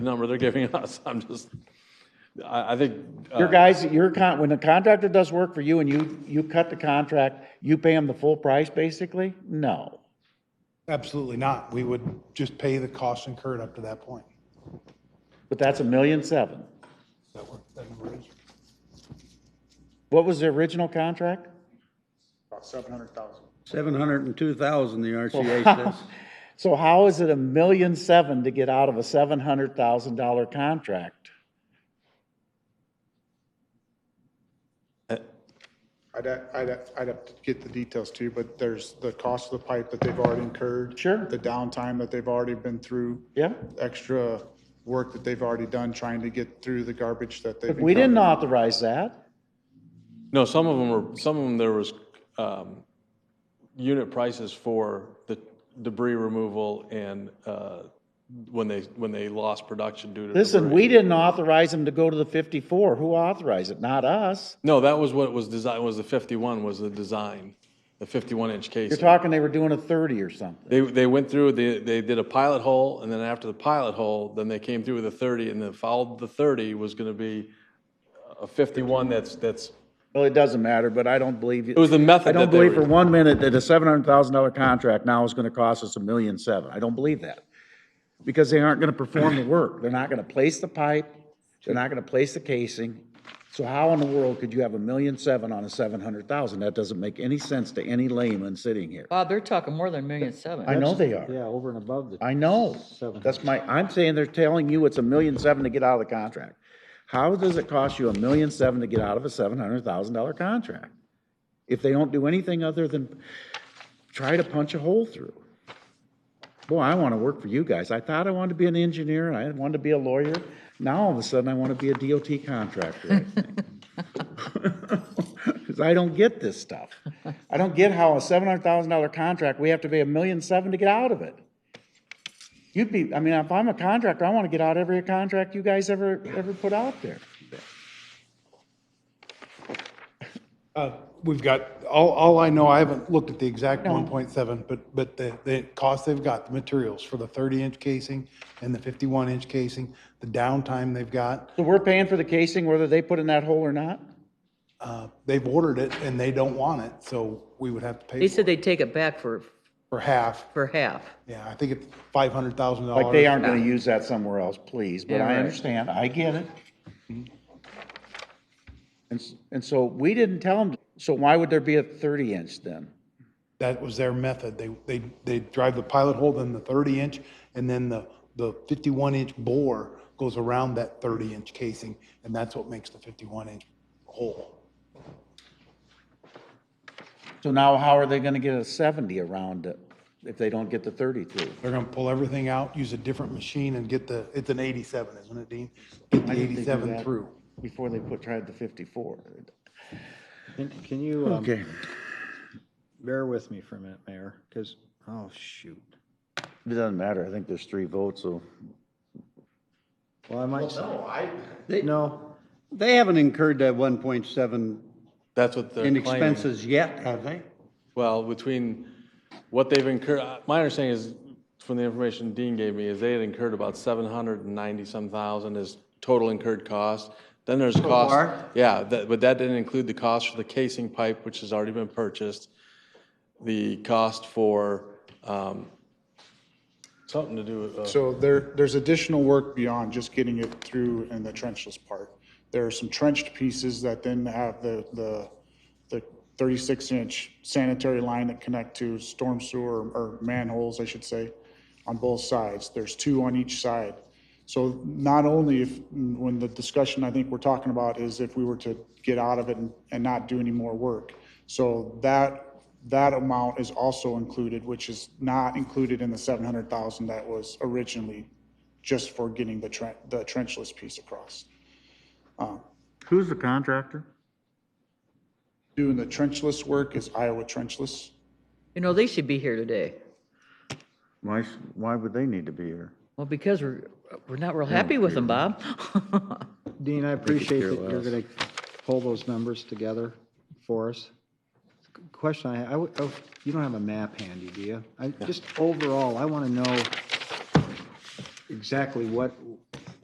number they're giving us. I'm just, I, I think. uh, Your guys, your con, when the contractor does work for you and you, you cut the contract, you pay him the full price, basically? No. Absolutely not. We would just pay the costs incurred up to that point. But that's a million seven. Is that what that number is? What was the original contract? About 700,000. 702,000, the RCA says. So how is it a million seven to get out of a seven hundred thousand dollar contract? I'd, ha- I'd, ha- I'd have to get the details to you, but there's the cost of the pipe that they've already incurred. Sure. The downtime that they've already been through. Yeah? Extra work that they've already done trying to get through the garbage that they've. We didn't incurred. authorize that. No, some of them were, some of them, there was um, unit prices for the debris removal and uh, when they, when they lost production due to debris. Listen, we didn't authorize them to go to the fifty-four. Who authorized it? Not us. No, that was what was designed, was the 51 was the design, the 51-inch case. You're talking they were doing a thirty or something. They, they went through, they, they did a pilot hole, and then after the pilot hole, then they came through with a 30, and then followed the 30 was going to be a 51 that's, that's, Well, it doesn't matter, but I don't believe you. it was the I method don't that they believe for were. one minute that a seven hundred thousand dollar contract now is gonna cost us a million seven. I don't believe that. Because they aren't gonna perform the work. They're not gonna place the pipe. They're not gonna place the casing. So how in the world could you have a million seven on a seven hundred thousand? That doesn't make any sense to any layman sitting here. Bob, they're talking more than a million seven. I know they are. Yeah, over and above the. I know. Seven. That's my, I'm saying they're telling you it's a million seven to get out of the contract. How does it cost you a million seven to get out of a seven hundred thousand dollar contract? If they don't do anything other than try to punch a hole through. Boy, I want to work for you guys. I thought I wanted to be an engineer, and I wanted to be a lawyer. Now all of a sudden, I want to be a DOT contractor, I think. Because I don't get this stuff. I don't get how a seven hundred thousand dollar contract, we have to pay a million seven to get out of it. You'd be, I mean, if I'm a contractor, I want to get out every contract you guys ever, ever put out there. Uh, We've got, all, all I know, I haven't looked at the exact 1.7, but, but the, the cost they've got, the materials for the 30-inch casing and the 51-inch casing, the downtime they've got, So we're paying for the casing whether they put in that hole or not? uh, they've ordered it and they don't want it, so we would have to They pay said for they'd take it back for, for half. for half. Yeah, I think it's $500,000. Like they aren't going to use that somewhere else, please, but Yeah, I right. understand, I get it. And, s- and so we didn't tell them, so why would there be a thirty inch then? That was their method. They, they, they drive the pilot hole, then the 30-inch, and then the, the 51-inch bore goes around that 30-inch casing, and that's what makes the 51-inch hole. So now how are they going to get a seventy around it if they don't get the thirty through? They're going to pull everything out, use a different machine and get the, it's an 87, isn't it, Dean? Get the Why didn't they do 87 that through. Before they put, tried the fifty-four. Can can you, um, Okay, bear with me for a minute, Mayor, because, oh, shoot. it doesn't matter, I think there's three votes, so. Well, I might. No, I. No, they haven't incurred that 1.7 That's what they're in claiming. expenses yet, have they? Well, between what they've incurred, uh, my understanding is, from the information Dean gave me, is they had incurred about seven hundred and ninety-some thousand is total incurred cost. Then there's cost. far? Yeah, that, but that didn't include the cost for the casing pipe, which has already been purchased. The cost for, um, something to do with, uh, So there, there's additional work beyond just getting it through in the trenchless part. There are some trenched pieces that then have the, the, the 36-inch sanitary line that connect to storm sewer or manholes, I should say, on both sides. There's two on each side. So not only if, when the discussion I think we're talking about is if we were to get out of it and, and not do any more work. So that, that amount is also included, which is not included in the seven hundred thousand that was originally just for getting the tren, the trenchless piece across. Who's the contractor? Doing the trenchless work is Iowa trenchless. You know, they should be here today. Why, s- why would they need to be here? Well, because we're, we're not real happy with them, Bob. Dean, I appreciate care that you're less. going to pull those numbers together for us. Question I, I, would- oh, you don't have a map handy, do you? I, just overall, I want to know exactly what,